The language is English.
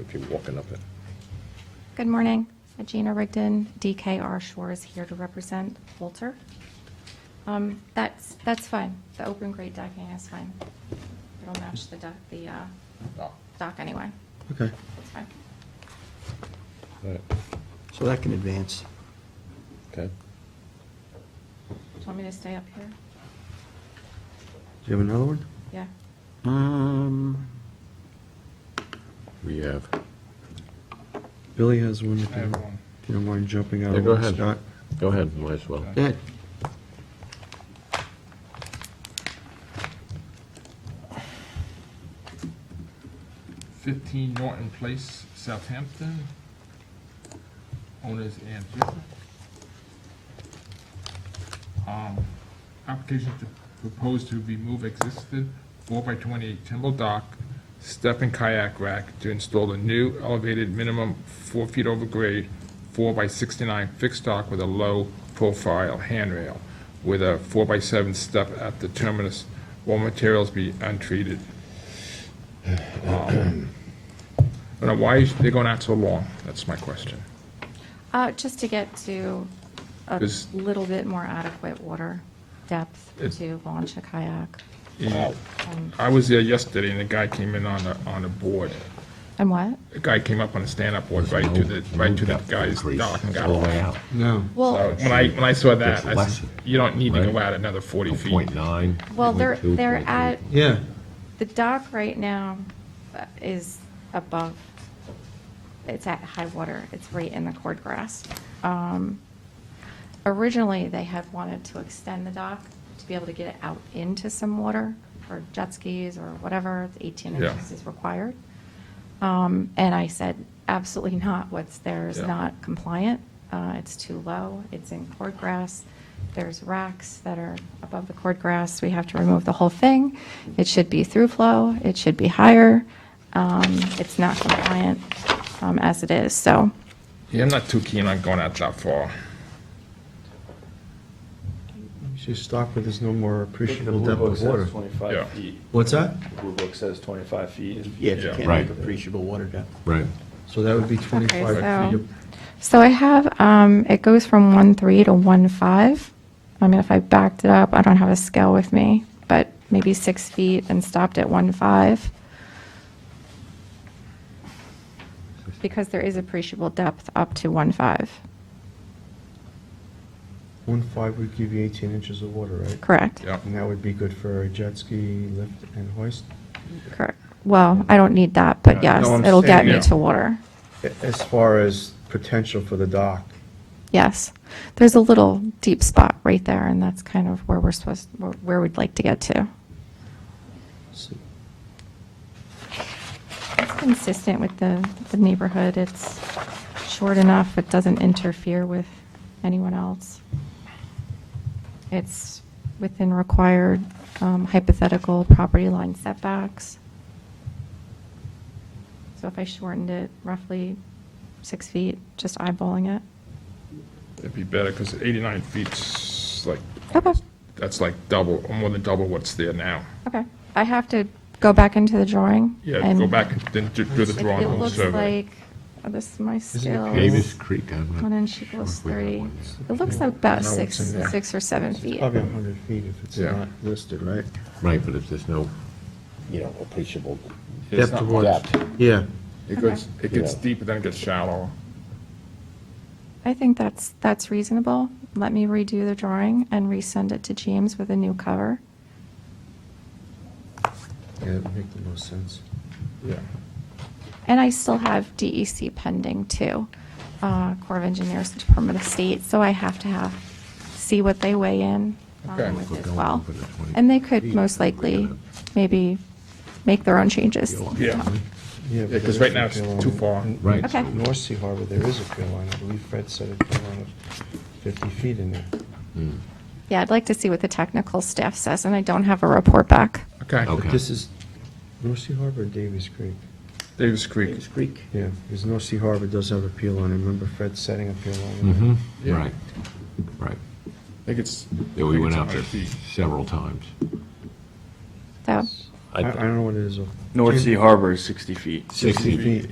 if you're walking up it. Good morning. Gina Rigdon, DKR Shores, here to represent Walter. Um, That's, that's fine. The open grade decking is fine. It'll match the dock, the uh, Oh. dock anyway. Okay, It's fine. All right, so that can advance. okay. Do you want me to stay up here? Do you have another one? Yeah. Um, We have, Billy has one, if I have you one. if you don't mind jumping out Yeah, of go one, ahead. Scott. go ahead, might as well. Go ahead. Fifteen Norton Place, Southampton. Owners Ann Griffith. Um, application to propose to remove existing four by twenty-eight timber dock, step and kayak rack to install a new elevated minimum four feet over grade, four by sixty-nine fixed dock with a low profile handrail with a four by seven step at the terminus, all materials be untreated. I don't know why is- they're going out so long, that's my question. Uh, Just to get to a Is- little bit more adequate water depth It- to launch a kayak. And I was there yesterday, and the guy came in on the, on the board. And what? The guy came up on a stand-up board right to the, right to that guy's dock and got off. No. Well, So When I, when I saw that, Oh, It's I less, said, you don't need to go right? out another 40 feet. Point nine. well, they're, they're at, Yeah, The dock right now uh, is above, it's at high water, it's right in the cord grass. Um, Originally, they had wanted to extend the dock to be able to get it out into some water for jet skis or whatever, It's 18 Yeah. inches is required. Um, And I said, absolutely not, what's there is Yeah. not compliant, Uh, it's too low, it's in cord grass, there's racks that are above the cord grass, we have to remove the whole thing, it should be through flow, it should be higher, Um, it's not compliant um, as it is, so. Yeah, I'm not too keen on going out that far. you should stop where there's no more The appreciable blue depth book of water. says Yeah. twenty-five feet. What's that? The blue book says twenty-five feet. Yeah, you Yeah. can't Right. make appreciable water depth. Right. So that would be Okay, 25 feet. so- So I have, um, it goes from one three to one five. I mean, if I backed it up, I don't have a scale with me, but maybe six feet and stopped at one five. Because there is appreciable depth up to one five, One five would give you 18 inches of water, right? correct? Yeah. And that would be good for a jet ski, lift, and hoist. Correct. Well, I don't need that, but Yeah, yes, no, I'm it'll get saying- me Yeah. to water. A- As far as potential for the dock, Yes. There's a little deep spot right there, and that's kind of where we're supposed, where- where we'd like to get to. so It's consistent with the, the neighborhood. It's short enough, it doesn't interfere with anyone else. It's within required um, hypothetical property line setbacks. So if I shortened it roughly six feet, just eyeballing it. It'd be better, because 89 feet's like, Okay. that's like double, or more than double what's there now. Okay, I have to go back into the drawing. Yeah, and go back, and then do do the Um, It drawing it on the looks survey. like, oh, this is my scale. Davis Creek, I'm not. One inch sure equals if we have thirty. one. It looks like I about know six, what's in there. six or seven it's feet. probably 100 feet if it's Yeah. not listed, right? Right, but if there's no, you know, appreciable It's Depth not of water. depth. Yeah. It gets, it gets Yeah. deeper, then it gets shallower. I think that's, that's reasonable. Let me redo the drawing and resend it to James with a new cover. Yeah, that'd make the most sense. Yeah. And I still have DEC pending too, uh, Corps of Engineers, Department of State, so I have to have, see what they weigh in Okay. um, with We're as going well. over the 20 And they could feet, most we're gonna- likely, maybe, make their own changes. Yeah. Yeah, Yeah, 'cause right now it's too far. Right. Okay. North Sea Harbor, there is a pier line, I believe Fred said a pier line of 50 feet in there. Yeah, I'd like to see what the technical staff says, and I don't have a report back. Okay. Okay. But this is North Sea Harbor or Davies Creek? Davis Creek. Creek. Yeah, because North Sea Harbor does have a pier line, I remember Fred setting a pier line. in Mm-hmm, there. Yeah. right, right. I think it's. Yeah, I we think went it's out there 100 feet. several times. So I I don't know what it is. though. North Sea Harbor is sixty feet. Sixty feet. Feet,